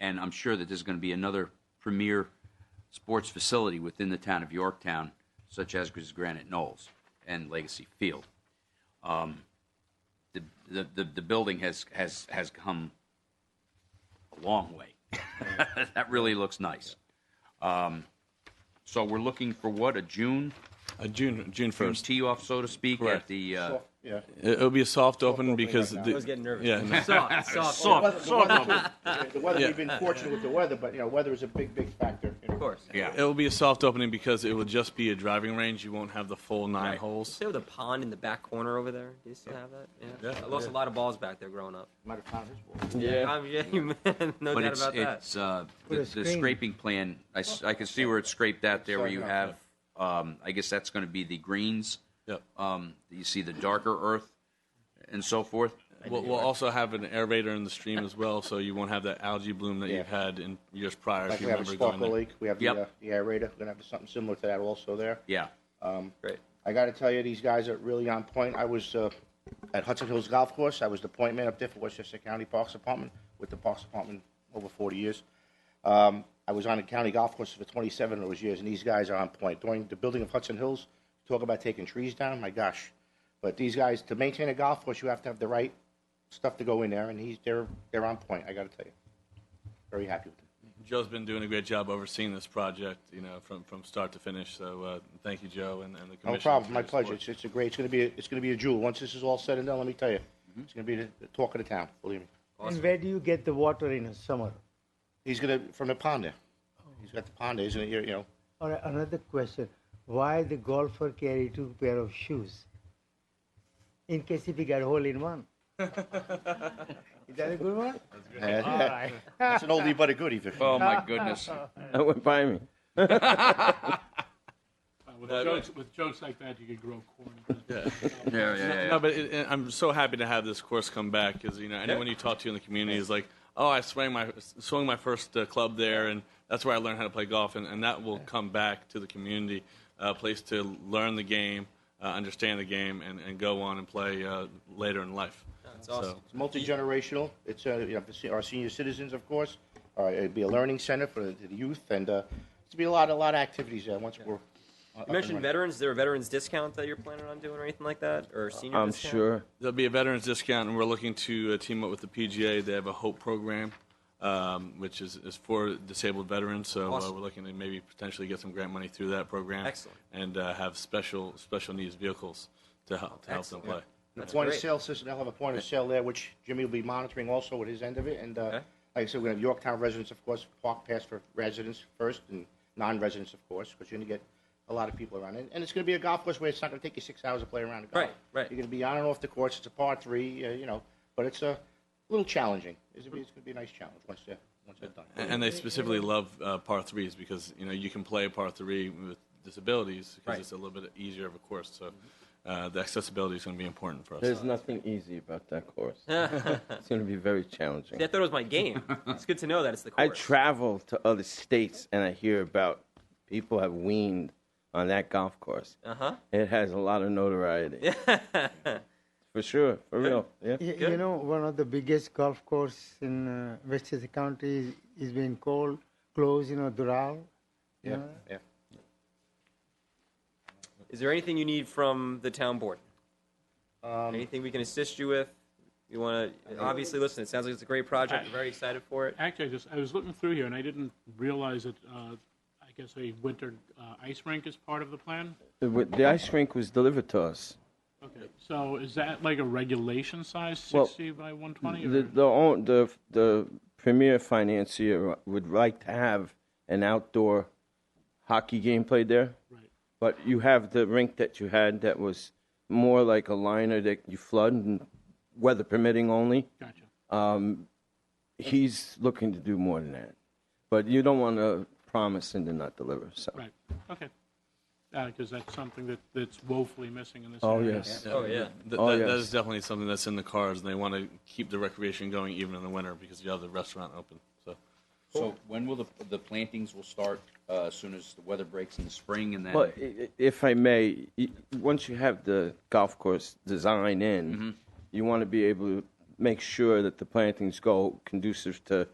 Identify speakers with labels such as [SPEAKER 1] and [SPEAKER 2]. [SPEAKER 1] and I'm sure that there's going to be another premier sports facility within the town of Yorktown, such as Granite Knolls and Legacy Field. Um, the, the, the, the building has, has, has come a long way. that really looks nice. Um, so we're looking for what, a June,
[SPEAKER 2] Uh, June June
[SPEAKER 1] June
[SPEAKER 2] first.
[SPEAKER 1] tee off, so to speak, at
[SPEAKER 2] Correct.
[SPEAKER 1] the, uh,
[SPEAKER 3] Yeah.
[SPEAKER 2] It'll be a soft open because
[SPEAKER 3] right now.
[SPEAKER 2] the,
[SPEAKER 3] I
[SPEAKER 4] was getting nervous.
[SPEAKER 2] Yeah,
[SPEAKER 5] Soft, soft.
[SPEAKER 3] Weather- The weather, the weather, we've been fortunate with the weather, but, you know, weather is a big, big factor.
[SPEAKER 4] Of course.
[SPEAKER 1] yeah.
[SPEAKER 2] it will be a soft opening because it will just be a driving range. You won't have the full nine
[SPEAKER 1] Right.
[SPEAKER 2] holes.
[SPEAKER 4] There with a pond in the back corner over there. Do you still have that? Yeah.
[SPEAKER 2] Yeah.
[SPEAKER 4] I lost a lot of balls back there growing up.
[SPEAKER 3] Might have found his ball.
[SPEAKER 4] Yeah. I'm, yeah, you- no
[SPEAKER 1] But
[SPEAKER 4] doubt
[SPEAKER 1] it's,
[SPEAKER 4] about that.
[SPEAKER 1] it's, uh, the,
[SPEAKER 5] a
[SPEAKER 1] the
[SPEAKER 5] screen.
[SPEAKER 1] scraping plan, I, s- I can see where it's scraped out there where you
[SPEAKER 3] Sorry,
[SPEAKER 1] have, um, I guess that's gonna be the greens.
[SPEAKER 2] Yep.
[SPEAKER 1] Um, you see the darker earth and so forth.
[SPEAKER 2] We'll, we'll also have an aerator in the stream as well, so you won't have that algae bloom that
[SPEAKER 3] Yeah.
[SPEAKER 2] you've had in years prior.
[SPEAKER 3] Like
[SPEAKER 2] if you
[SPEAKER 3] we have a
[SPEAKER 2] remember going
[SPEAKER 3] sparkle
[SPEAKER 2] there.
[SPEAKER 3] lake, we have the,
[SPEAKER 1] Yep.
[SPEAKER 3] uh, the aerator, we're gonna have something similar to that also there.
[SPEAKER 1] Yeah,
[SPEAKER 4] Great.
[SPEAKER 3] I gotta tell you, these guys are really on point. I was, uh, at Hudson Hills Golf Course, I was the point man up there for Westchester County Parks Department, with the Parks Department over forty years. Um, I was on the county golf course for twenty-seven of those years, and these guys are on point. During the building of Hudson Hills, talk about taking trees down, my gosh. But these guys, to maintain a golf course, you have to have the right stuff to go in there, and he's, they're, they're on point, I gotta tell you. Very happy with them.
[SPEAKER 2] Joe's been doing a great job overseeing this project, you know, from, from start to finish. So uh, thank you, Joe, and, and the commission.
[SPEAKER 3] No problem,
[SPEAKER 2] for
[SPEAKER 3] my
[SPEAKER 2] your support.
[SPEAKER 3] pleasure. It's, it's a great, it's gonna be, a- it's gonna be a jewel. Once this is all said and done, let me tell you,
[SPEAKER 2] Mm-hmm.
[SPEAKER 3] it's gonna be the the talk of the town, believe me.
[SPEAKER 5] And where do you get the water in the summer?
[SPEAKER 3] He's gonna, from the pond there.
[SPEAKER 2] Oh.
[SPEAKER 3] He's got the pond there, isn't it, you know?
[SPEAKER 5] Or another question, why the golfer carry two pair of shoes? In case if he got hole in one. Is that a good one?
[SPEAKER 3] That's an oldie but a goodie, Victor.
[SPEAKER 1] oh my goodness.
[SPEAKER 6] That went by me.
[SPEAKER 7] Uh, With jokes, with jokes like that, you could grow corn.
[SPEAKER 1] Yeah, yeah,
[SPEAKER 2] No, but it, it- I'm so happy to have this course come back because you know anyone you talk to in the community is like, oh, I swung my swung my first uh, club there, and that's where I learned how to play golf, and, and that will come back to the community, uh, a place to learn the game, uh, understand the game, and, and go on and play uh, later in life.
[SPEAKER 4] That's awesome.
[SPEAKER 2] So,
[SPEAKER 3] It's multi-generational. It's, uh, you know, for se- our senior citizens, of course. All right, it'd be a learning center for the the youth and, uh, it's gonna be a lot, a lot of activities there once we're. uh, up and
[SPEAKER 4] You mentioned
[SPEAKER 3] running.
[SPEAKER 4] veterans. Is there a veterans discount that you're planning on doing or anything like that? Or senior
[SPEAKER 6] I'm
[SPEAKER 4] discount?
[SPEAKER 6] sure.
[SPEAKER 2] there'll be a veterans discount, and we're looking to uh, team up with the PGA. They have a Hope program. Um, which is, is for disabled veterans, so uh,
[SPEAKER 4] Awesome.
[SPEAKER 2] we're looking to maybe potentially get some grant money through that program.
[SPEAKER 4] Excellent.
[SPEAKER 2] and uh, have special special needs vehicles to help to help them
[SPEAKER 4] Excellent.
[SPEAKER 2] play.
[SPEAKER 3] The
[SPEAKER 4] That's
[SPEAKER 3] point of
[SPEAKER 4] great.
[SPEAKER 3] sale system, they'll have a point of sale there, which Jimmy will be monitoring also at his end of it. And uh,
[SPEAKER 4] Okay.
[SPEAKER 3] like I said, we're gonna have Yorktown residents, of course, park pass for residents first and non-residents, of course, because you're gonna get a lot of people around. And and it's gonna be a golf course where it's not gonna take you six hours to play around a golf.
[SPEAKER 4] Right, right.
[SPEAKER 3] You're gonna be on and off the course. It's a par three, uh, you know, but it's a little challenging. It's gonna be, it's gonna be a nice challenge once they're, once they're done.
[SPEAKER 2] And, and they specifically love uh, par threes because you know you can play a par three with disabilities because
[SPEAKER 4] Right.
[SPEAKER 2] it's a little bit easier of a course. So uh, the accessibility is going to be important for us.
[SPEAKER 6] There's nothing easy about that course. it's going to be very challenging.
[SPEAKER 4] See, I thought it was my game. it's good to know that it's the
[SPEAKER 6] I
[SPEAKER 4] course.
[SPEAKER 6] travel to other states and I hear about people have weaned on that golf course.
[SPEAKER 4] Uh-huh.
[SPEAKER 6] It has a lot of notoriety. For sure. For real. Yeah.
[SPEAKER 5] Y- You know, one of the biggest golf course in uh, Westchester County is, is being called, closed, you know, Doral.
[SPEAKER 3] Yeah, yeah.
[SPEAKER 4] Is there anything you need from the town board? anything we can assist you with? You want to obviously listen. It sounds like it's a great project. I'm very excited for it.
[SPEAKER 7] Actually, I just, I was looking through here and I didn't realize that, uh, I guess a winter, uh, ice rink is part of the plan?
[SPEAKER 6] The, with- the ice rink was delivered to us.
[SPEAKER 7] Okay, so is that like a regulation size,
[SPEAKER 6] Well,
[SPEAKER 7] sixty by one twenty?
[SPEAKER 6] The, the, own, the, the premier financier would like to have an outdoor hockey game played there.
[SPEAKER 7] Right,
[SPEAKER 6] But you have the rink that you had that was more like a liner that you flood, and weather permitting only.
[SPEAKER 7] gotcha.
[SPEAKER 6] He's looking to do more than that. But you don't want to promise and then not deliver. So.
[SPEAKER 7] Right, okay. Because that's something that, that's woefully missing in this
[SPEAKER 6] Oh,
[SPEAKER 7] area.
[SPEAKER 6] yes.
[SPEAKER 4] Oh yeah.
[SPEAKER 2] Th-
[SPEAKER 6] Oh,
[SPEAKER 2] that, that
[SPEAKER 6] yes.
[SPEAKER 2] is definitely something that's in the cards, and they want to keep the recreation going even in the winter because you have the restaurant open. So
[SPEAKER 1] So when will the, the plantings will start, uh, as soon as the weather breaks in the spring and then?
[SPEAKER 6] Well, i- i- if I may, y- once you have the golf course design in, you want to be able to make sure that the plantings go conducive to